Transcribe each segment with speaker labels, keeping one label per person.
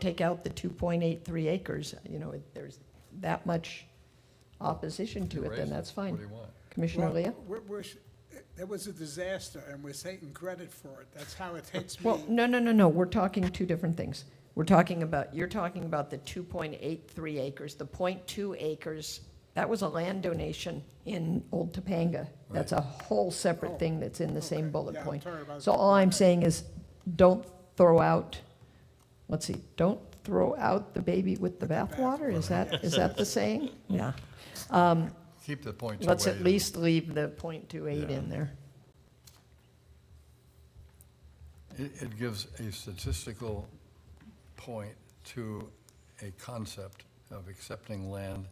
Speaker 1: take out the 2.83 acres, you know, if there's that much opposition to it,
Speaker 2: Erase
Speaker 1: then that's
Speaker 2: What do
Speaker 1: fine.
Speaker 2: you want?
Speaker 1: Commissioner Leo?
Speaker 3: We're, we're, sh- that was a disaster, and we're taking credit for it. That's how it hits
Speaker 1: Well,
Speaker 3: me.
Speaker 1: no, no, no, no, we're talking two different things. We're talking about, you're talking about the 2.83 acres, the .2 acres, that was a land donation in Old Topanga. That's a whole separate thing that's in the same
Speaker 3: Okay,
Speaker 1: bullet
Speaker 3: yeah, I'm
Speaker 1: point.
Speaker 3: sorry about
Speaker 1: So
Speaker 3: that.
Speaker 1: all I'm saying is, don't throw out, let's see, don't throw out the baby with the bathwater? Is that, is that the saying? Yeah.
Speaker 2: Keep the points away.
Speaker 1: Let's at least leave the .28
Speaker 2: Yeah.
Speaker 1: in there.
Speaker 2: It, it gives a statistical point to a concept of accepting land.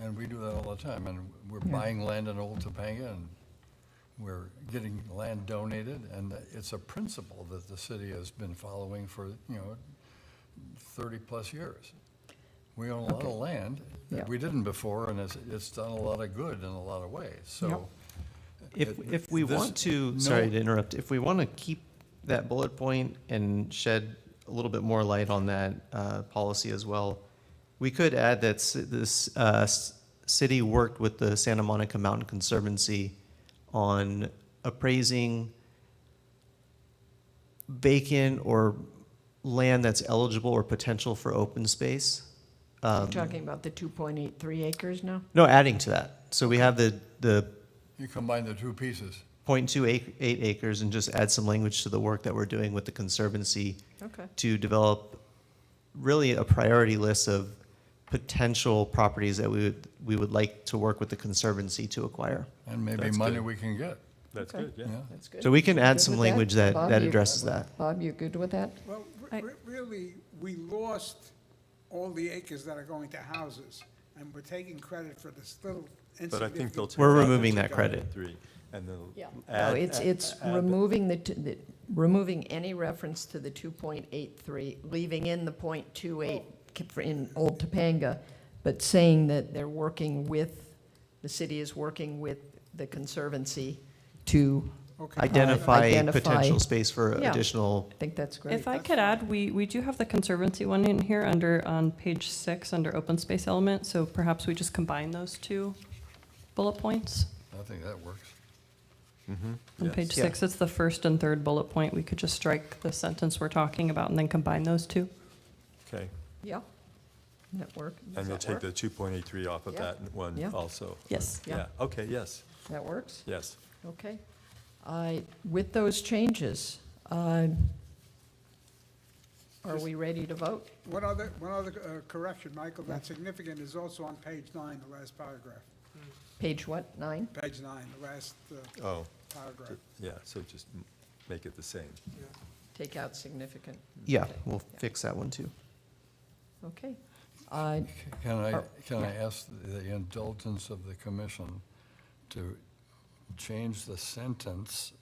Speaker 2: And we do that all the time, and we're buying land in Old Topanga, and we're getting land donated, and it's a principle that the city has been following for, you know, thirty-plus years. We own a lot of land
Speaker 1: Yeah.
Speaker 2: that we didn't before, and it's, it's done a lot of good in a lot of ways, so.
Speaker 4: If,
Speaker 2: It-
Speaker 4: if we
Speaker 2: this-
Speaker 4: want to,
Speaker 2: no-
Speaker 4: sorry to interrupt, if we want to keep that bullet point and shed a little bit more light on that uh, policy as well, we could add that ci- this uh, s- city worked with the Santa Monica Mountain Conservancy on appraising vacant or land that's eligible or potential for open space.
Speaker 1: You're
Speaker 4: Um,
Speaker 1: talking about the 2.83 acres now?
Speaker 4: No, adding to that. So we have the, the
Speaker 2: You combine the two pieces.
Speaker 4: 0.28 ac- eight acres and just add some language to the work that we're doing with the conservancy
Speaker 1: Okay.
Speaker 4: to develop really a priority list of potential properties that we would, we would like to work with the conservancy to acquire.
Speaker 2: And maybe
Speaker 5: That's
Speaker 2: money
Speaker 5: good.
Speaker 2: we can get,
Speaker 5: That's
Speaker 1: Okay.
Speaker 5: good, yeah.
Speaker 2: yeah.
Speaker 1: That's good.
Speaker 4: So we can add
Speaker 1: Good
Speaker 4: some
Speaker 1: with that?
Speaker 4: language that,
Speaker 1: Bob,
Speaker 4: that
Speaker 1: you-
Speaker 4: addresses that.
Speaker 1: Bob, you good with that?
Speaker 3: Well,
Speaker 6: I-
Speaker 3: re- re- really, we lost all the acres that are going to houses, and we're taking credit for this little
Speaker 5: But I think they'll.
Speaker 3: insignificant.
Speaker 5: take
Speaker 4: We're
Speaker 5: that
Speaker 4: removing
Speaker 5: into
Speaker 4: that credit.
Speaker 5: guide Three, and they'll.
Speaker 1: Yeah. No,
Speaker 5: add-
Speaker 1: Oh, it's,
Speaker 5: add-
Speaker 1: it's
Speaker 5: add-
Speaker 1: removing the, t- the- removing any reference to the 2.83, leaving in the .28 ki- for- in Old Topanga, but saying that they're working with, the city is working with the conservancy to,
Speaker 3: Okay.
Speaker 4: Identify
Speaker 1: Identify-
Speaker 4: potential space for
Speaker 1: Yeah.
Speaker 4: additional,
Speaker 1: I think that's great.
Speaker 6: If I
Speaker 3: That's
Speaker 6: could add, we, we do have the conservancy one in here under, on page six, under open space element, so perhaps we just combine those two bullet points.
Speaker 2: I think that works.
Speaker 6: On page
Speaker 4: Yeah.
Speaker 6: six, it's the first and third bullet point, we could just strike the sentence we're talking about and then combine those two.
Speaker 5: Okay,
Speaker 1: Yeah. Network.
Speaker 5: and they'll take the two point eight three off of
Speaker 1: Yeah.
Speaker 5: that one
Speaker 1: Yeah.
Speaker 5: also.
Speaker 6: Yes.
Speaker 1: Yeah.
Speaker 5: Yeah, okay, yes,
Speaker 1: That works?
Speaker 5: yes.
Speaker 1: Okay. I, with those changes, um, are we ready to vote?
Speaker 3: One other, one other uh, correction, Michael, that significant is also on page nine, the last paragraph.
Speaker 1: Page what, nine?
Speaker 3: Page nine, the last uh,
Speaker 5: Oh,
Speaker 3: paragraph.
Speaker 5: yeah, so just m- make it the same.
Speaker 1: Take out significant.
Speaker 4: yeah, we'll fix that one too.
Speaker 1: Okay. Uh,
Speaker 2: Can I,
Speaker 1: Oh,
Speaker 2: can I ask the indulgence of the commission to change the sentence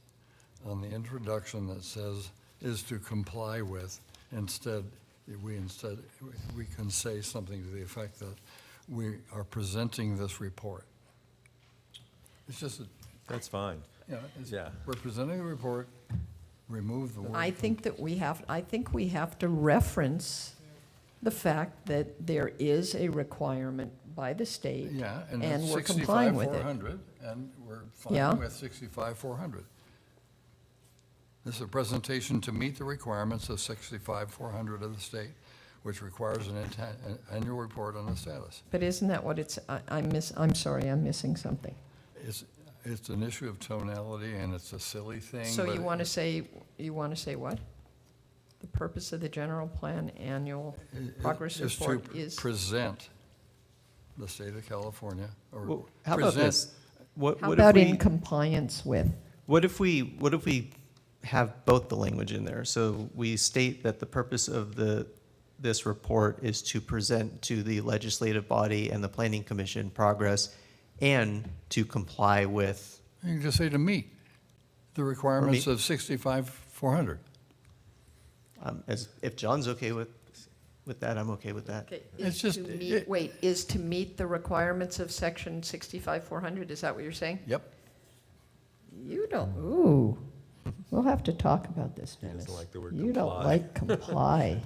Speaker 2: on the introduction that says, "is to comply with," instead, we instead, we can say something to the effect that we are presenting this report. It's just, a-
Speaker 5: That's fine.
Speaker 2: you know, it's,
Speaker 5: Yeah.
Speaker 2: we're presenting the report, remove the word.
Speaker 1: I think that we have, I think we have to reference the fact that there is a requirement by the state.
Speaker 2: Yeah, and
Speaker 1: and
Speaker 2: it's
Speaker 1: we're complying
Speaker 2: sixty-five,
Speaker 1: with it.
Speaker 2: four hundred, and we're
Speaker 1: Yeah.
Speaker 2: fine with sixty-five, four hundred. This is a presentation to meet the requirements of sixty-five, four hundred of the state, which requires an inten- an annual report on the status.
Speaker 1: But isn't that what it's, I, I miss, I'm sorry, I'm missing something.
Speaker 2: It's, it's an issue of tonality, and it's a silly thing.
Speaker 1: So
Speaker 2: but
Speaker 1: you want to
Speaker 2: it-
Speaker 1: say, you want to say what? The purpose of the general plan annual
Speaker 2: it-
Speaker 1: progress
Speaker 2: it's to
Speaker 1: report is,
Speaker 2: Present the state of California, or
Speaker 4: Well, How about
Speaker 2: present-
Speaker 4: this? What,
Speaker 1: how
Speaker 4: what
Speaker 1: about
Speaker 4: if
Speaker 1: in
Speaker 4: we,
Speaker 1: compliance with?
Speaker 4: what if we, what if we have both the language in there? So we state that the purpose of the, this report is to present to the legislative body and the planning commission progress and to comply with,
Speaker 2: You can just say to meet the requirements of sixty-five, four hundred.
Speaker 4: um, as, if John's okay with, with that, I'm okay with that.
Speaker 2: It's just- it-
Speaker 1: Wait, is to meet the requirements of section sixty-five, four hundred, is that what you're saying?
Speaker 2: Yep.
Speaker 1: You don't, ooh.
Speaker 5: We'll have to talk about this,
Speaker 1: doesn't
Speaker 5: Dennis.
Speaker 1: like the word
Speaker 5: You don't
Speaker 1: comply.
Speaker 5: like comply.